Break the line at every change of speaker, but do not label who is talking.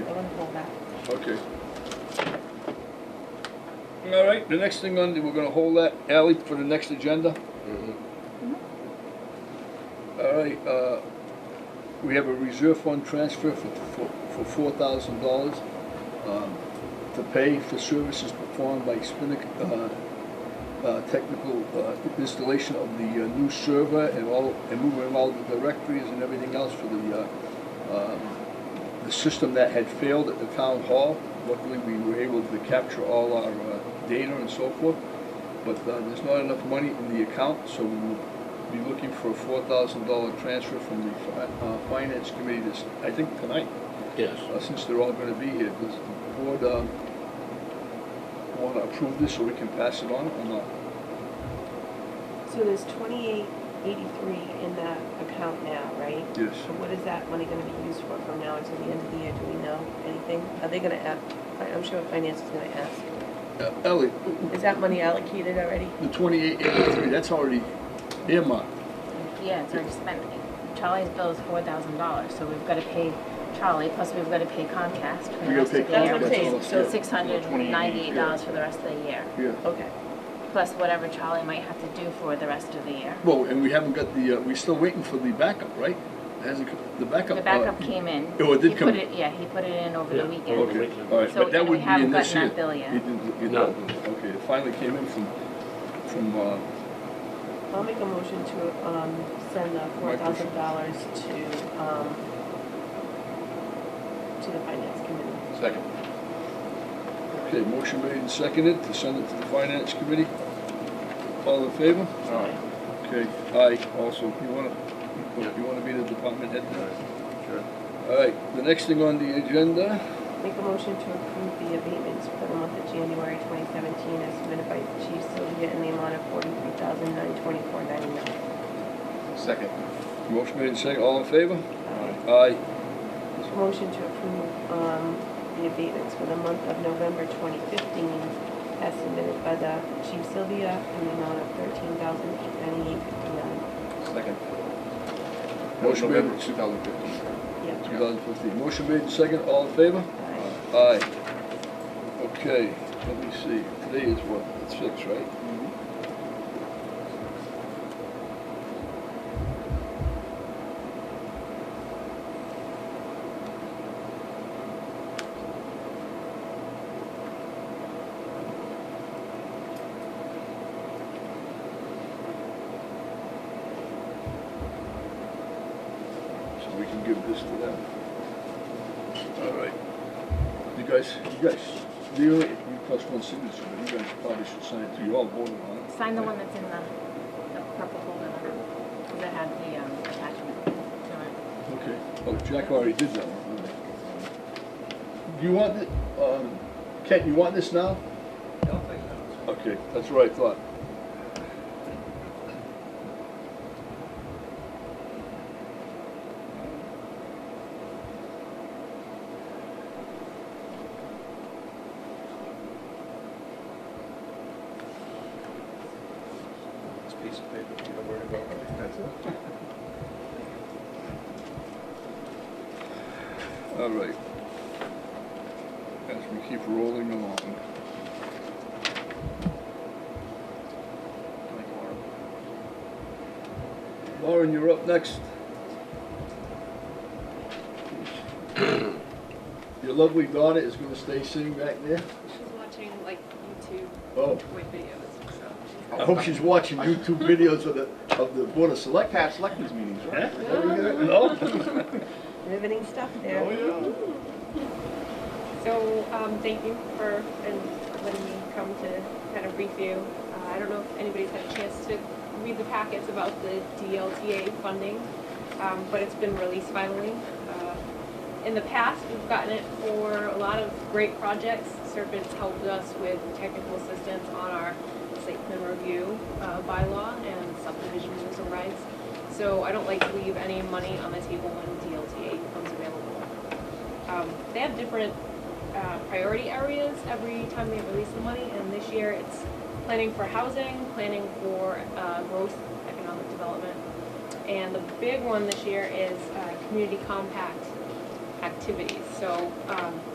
Okay. All right, the next thing on, the- we're gonna hold that alley for the next agenda.
Mm-hmm.
All right, uh, we have a reserve fund transfer for, for, for four thousand dollars, um, to pay for services performed by Spinnaker, uh, uh, technical, uh, installation of the uh, new server and all, and moving all the directories and everything else for the, uh, um, the system that had failed at the town hall. Luckily, we were able to capture all our uh, data and so forth, but uh, there's not enough money in the account, so we will be looking for a four thousand dollar transfer from the fi- uh, finance committee this, I think tonight,
Yes.
uh, since they're all gonna be here. Does the board um, wanna approve this so we can pass it on or not?
So there's twenty-eight eighty-three in that account now, right?
Yes.
So what is that money gonna be used for from now until the end of the year? Do we know anything? Are they gonna ask, I'm sure finance is gonna ask.
Uh, Ellie,
Is that money allocated already?
the twenty-eight eighty-three, that's already earmarked.
Yeah, it's already spent. Charlie's bill is four thousand dollars, so we've gotta pay Charlie, plus we've gotta pay Comcast for
We
the
gotta
rest
pay
of the
That's what I'm
year.
Comcast.
saying,
all,
so
yeah.
Six hundred ninety-eight dollars for the rest of the year,
Yeah.
Okay.
plus whatever Charlie might have to do for the rest of the year.
Well, and we haven't got the, uh, we're still waiting for the backup, right? Hasn't, co- the backup.
The
uh,
backup came in.
oh, it did
He
come
put
in.
Yeah, he put it in over
Yeah,
the
over
weekend.
the weekend.
All right,
So,
but that
and we
would be
haven't
in this
gotten
year.
that bill yet.
You didn't- you
No.
didn't- Okay, it finally came in from, from, uh,
I'll make a motion to, um, send the four thousand dollars to, um, to the finance committee.
Second. Okay, motion made and seconded to send it to the finance committee. All in favor?
Aye.
Okay, aye, also, you wanna, you wanna be the department head now?
Sure.
All right, the next thing on the agenda,
Make a motion to approve the abatements for the month of January twenty seventeen as submitted by Chief Sylvia in the amount of forty-three thousand nine twenty-four ninety-nine.
Second.
motion made and seconded, all in favor?
Aye.
Aye.
Motion to approve um, the abatements for the month of November 2015 as submitted by the Chief Sylvia in the amount of $13,898.59.
Second.
Motion made.
November 2015.
Yep.
2015. Motion made and second, all in favor?
Aye.
Aye. Okay, let me see, today is what, It's six, right? So we can give this to them. All right. You guys, you guys, you, you plus one signature, but you guys probably should sign it too. You all voted on it.
Sign the one that's in the, the purple folder, because it had the um, attachment to it.
Okay. Oh, Jack already did that one. didn't he? Do you want the, um, Kent, you want this now? Okay, that's what I thought.
This piece of paper, you don't worry about it. That's it.
All right. As we keep rolling along. Lauren, you're up next. Your lovely daughter is gonna stay sitting back there.
She's watching like YouTube
Oh,
with videos, so.
I hope she's watching YouTube videos of the, of the Board of Select.
Past selectmen's meetings,
Huh?
right?
No?
Riveting stuff there.
Oh,
So, um, thank you for, and letting me come to kind of brief you. Uh, I don't know if anybody's had a chance to read the packets about the DLTA funding, um, but it's been released finally. Uh, In the past, we've gotten it for a lot of great projects. Serpents helped us with technical assistance on our site plan review, uh, bylaw and subdivision rules and rights. So I don't like to leave any money on the table when DLTA becomes available. Um, they have different uh, priority areas every time they release the money, and this year it's planning for housing, planning for uh, growth, economic development. And the big one this year is uh, community compact activities. So um,